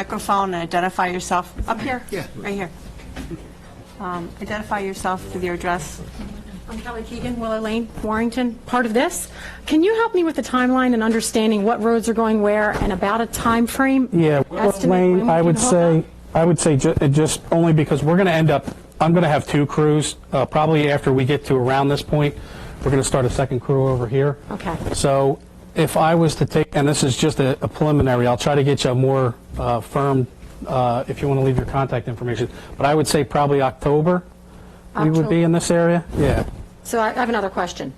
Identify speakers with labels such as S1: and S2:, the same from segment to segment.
S1: microphone and identify yourself up here?
S2: Yeah.
S1: Right here. Um, Identify yourself with your address.
S3: I'm Kelly Keegan, Willow Lane, Warrington, part of this. Can you help me with the timeline and understanding what roads are going where and about a time frame?
S4: Yeah,
S3: Estimate when
S4: Lane,
S3: we
S4: I
S3: can
S4: would
S3: hook
S4: say,
S3: up?
S4: I would say ju- uh, just only because we're going to end up, I'm going to have two crews, uh, probably after we get to around this point, we're going to start a second crew over here.
S3: Okay.
S4: So if I was to take, and this is just a a preliminary, I'll try to get you a more uh, firm, uh, if you want to leave your contact information, but I would say probably October, we would be in this area, yeah.
S3: So I I have another question.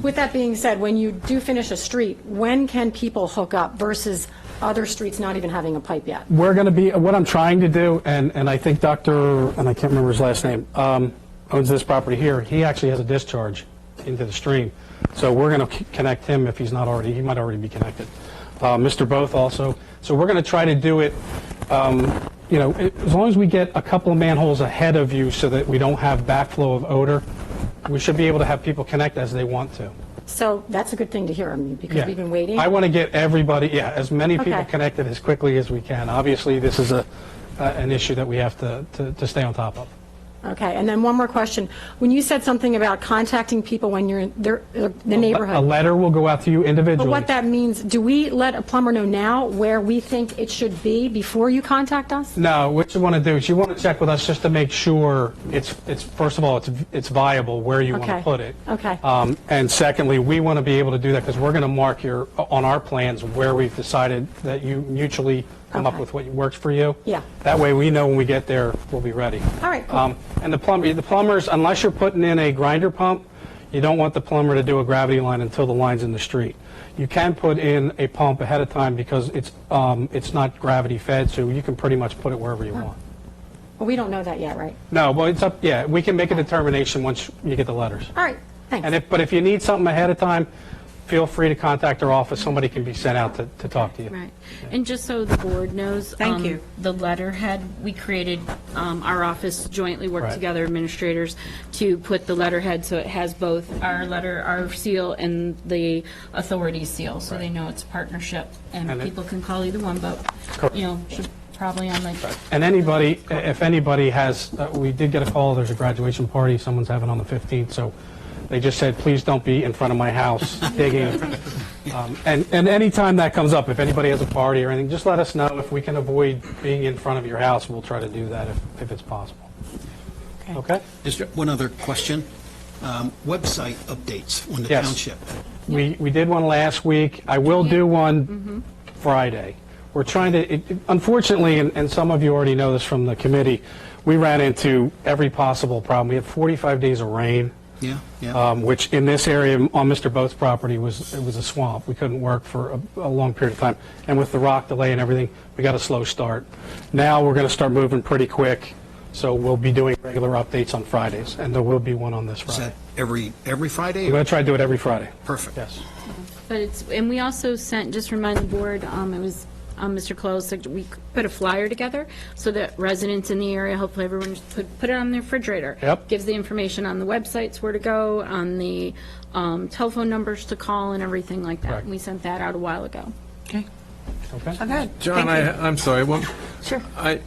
S3: With that being said, when you do finish a street, when can people hook up versus other streets not even having a pipe yet?
S4: we're going to be, what I'm trying to do, and, and I think Dr., and I can't remember his last name, um, owns this property here, he actually has a discharge into the stream. So we're going to connect him if he's not already, he might already be connected. Uh, Mr. Both also. So we're going to try to do it, um, you know, it- as long as we get a couple of manholes ahead of you so that we don't have backflow of odor, we should be able to have people connect as they want to.
S3: So that's a good thing to hear, I mean, because
S4: Yeah.
S3: we've been waiting.
S4: I want to get everybody, yeah, as many people
S3: Okay.
S4: connected as quickly as we can. Obviously, this is a, uh, an issue that we have to, to, to stay on top of.
S3: Okay, and then one more question. When you said something about contacting people when you're in their- the neighborhood.
S4: A letter will go out to you individually.
S3: But what that means, do we let a plumber know now where we think it should be before you contact us?
S4: No, what you want to do is you want to check with us just to make sure it's, it's, first of all, it's, it's viable where you want to
S3: Okay.
S4: put it.
S3: Okay.
S4: Um, and secondly, we want to be able to do that because we're going to mark your, on our plans where we've decided that you mutually come up
S3: Okay.
S4: with what works for you.
S3: Yeah.
S4: That way we know when we get there, we'll be ready.
S3: All right, cool.
S4: Um, and the plumber, the plumbers, unless you're putting in a grinder pump, you don't want the plumber to do a gravity line until the line's in the street. You can put in a pump ahead of time because it's, um, it's not gravity fed, so you can pretty much put it wherever you want.
S3: Well, we don't know that yet, right?
S4: No, well, it's up, yeah, we can make a determination once you get the letters.
S3: All right,
S4: And
S3: thanks.
S4: if, but if you need something ahead of time, feel free to contact our office. Somebody can be sent out to, to talk to you.
S5: Right. And just so the board knows.
S1: Thank
S5: um,
S1: you.
S5: The letterhead, we created, um, our office jointly worked
S4: Right.
S5: together, administrators, to put the letterhead, so it has both our letter, our seal, and the authority seal, so they know it's a partnership, and
S4: And it-
S5: people can call either one, but,
S4: Correct.
S5: you know, should probably on like,
S4: And anybody, if anybody has, uh, we did get a call, there's a graduation party, someone's having on the 15th, so they just said, please don't be in front of my house digging. Um, And, and anytime that comes up, if anybody has a party or anything, just let us know. If we can avoid being in front of your house, we'll try to do that if, if it's possible. Okay?
S2: Is there one other question? Um, Website updates on the
S4: Yes.
S2: township.
S4: We, we did one last week. I will do one Friday. We're trying to, it- it- unfortunately, and, and some of you already know this from the committee, we ran into every possible problem. We had 45 days of rain.
S2: Yeah, yeah.
S4: um, which in this area on Mr. Both's property was, it was a swamp. We couldn't work for a, a long period of time. And with the rock delay and everything, we got a slow start. Now we're going to start moving pretty quick, so we'll be doing regular updates on Fridays, and there will be one on this
S2: Is
S4: Friday.
S2: that every, every Friday?
S4: We're going to try to do it every Friday.
S2: Perfect.
S4: Yes.
S5: But it's, and we also sent, just remind the board, um, it was, um, Mr. Close, said we put a flyer together so that residents in the area, hopefully everyone just put, put it on their refrigerator.
S4: Yep.
S5: Gives the information on the websites, where to go, on the, um, telephone numbers to call and everything like that.
S4: Correct.
S5: And we sent that out a while ago.
S4: Okay?
S1: Good.
S6: John, I, I'm sorry, one. Sure. I,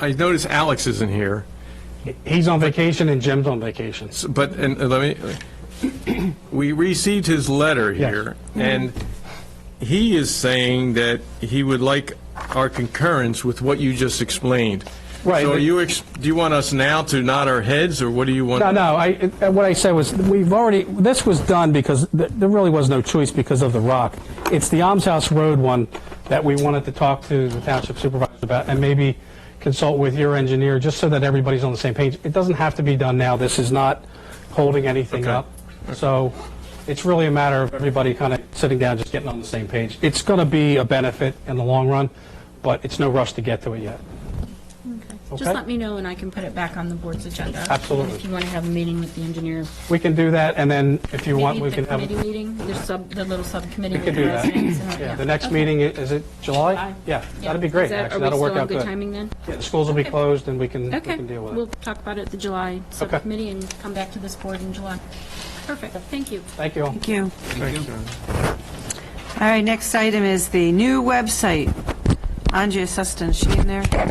S6: I notice Alex isn't here,
S4: He's on vacation and Jim's on vacation.
S6: s- but, and uh, let me, we received his letter
S4: Yes.
S6: here, and he is saying that he would like our concurrence with what you just explained.
S4: Right,
S6: So are
S4: but-
S6: you, ex- do you want us now to nod our heads, or what do you want?
S4: No, no, I, uh, what I said was, we've already, this was done because th- there really was no choice because of the rock. It's the Alms House Road one that we wanted to talk to the township supervisor about and maybe consult with your engineer, just so that everybody's on the same page. It doesn't have to be done now, this is not holding anything
S6: Okay.
S4: up. So it's really a matter of everybody kind of sitting down, just getting on the same page. It's going to be a benefit in the long run, but it's no rush to get to it yet. Okay.
S5: Just let me know and I can put it back on the board's agenda.
S4: Absolutely.
S5: If you want to have a meeting with the engineer.
S4: We can do that, and then if you want,
S5: Maybe
S4: we
S5: the
S4: can have.
S5: Committee meeting, the sub, the little subcommittee.
S4: We could do that. Yeah, the next meeting, i- is it July?
S5: July.
S4: Yeah, that'd be great, actually, that'll work out
S5: Are we still on good
S4: good.
S5: timing then?
S4: Yeah, the schools will be closed, and we can, we
S5: Okay,
S4: can deal with
S5: we'll
S4: it.
S5: talk about it at the July subcommittee and come back to this board in July. Perfect, thank you.
S4: Thank you all.
S1: Thank you.
S2: Thank you.
S1: All right, next item is the new website. Angie Seston, she in there?